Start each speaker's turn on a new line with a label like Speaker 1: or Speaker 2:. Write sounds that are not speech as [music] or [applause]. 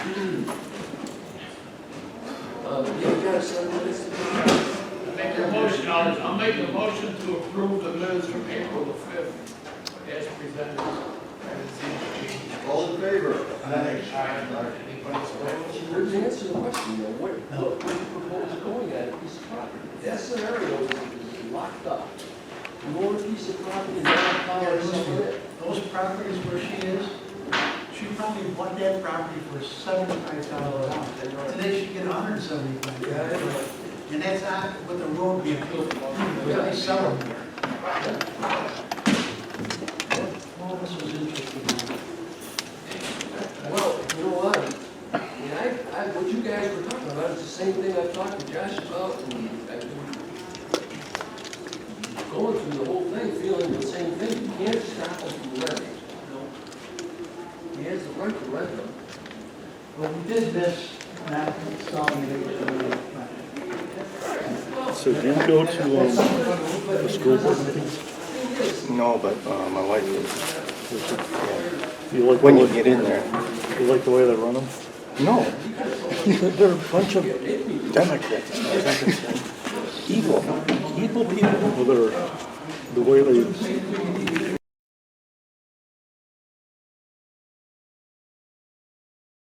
Speaker 1: yes, I mean, it's,
Speaker 2: Make a motion, I'll, I'll make a motion to approve the minutes from April the fifth as presented.
Speaker 3: All in favor? Aye.
Speaker 2: uh, Anybody opposed?
Speaker 1: you didn't answer the question, though, what, what do you propose going at a piece of property? That scenario is locked up. You own a piece of property and that power is over it.
Speaker 4: Those properties where she is, she probably bought that property for seventy-five thousand dollars. Today she get a hundred and seventy-five thousand. And that's not with the road being built, They're only selling there. Well, this was interesting.
Speaker 1: Well, you know what? I mean, I, I, what you guys were talking about is the same thing I've talked to Josh about, and I've been going through the whole thing, feeling the same thing, you can't stop them from renting. He has the right to rent them.
Speaker 4: Well, we did this, not selling it.
Speaker 5: So do you go to, um,
Speaker 1: The
Speaker 5: school board
Speaker 6: No, but uh, my wife is.
Speaker 5: you like the
Speaker 6: When you
Speaker 5: way,
Speaker 6: get in there.
Speaker 5: you like the way
Speaker 6: [laughs]
Speaker 5: they run them?
Speaker 6: No,
Speaker 5: They're a bunch of
Speaker 6: Democrats. Evil.
Speaker 5: evil people that are, the way they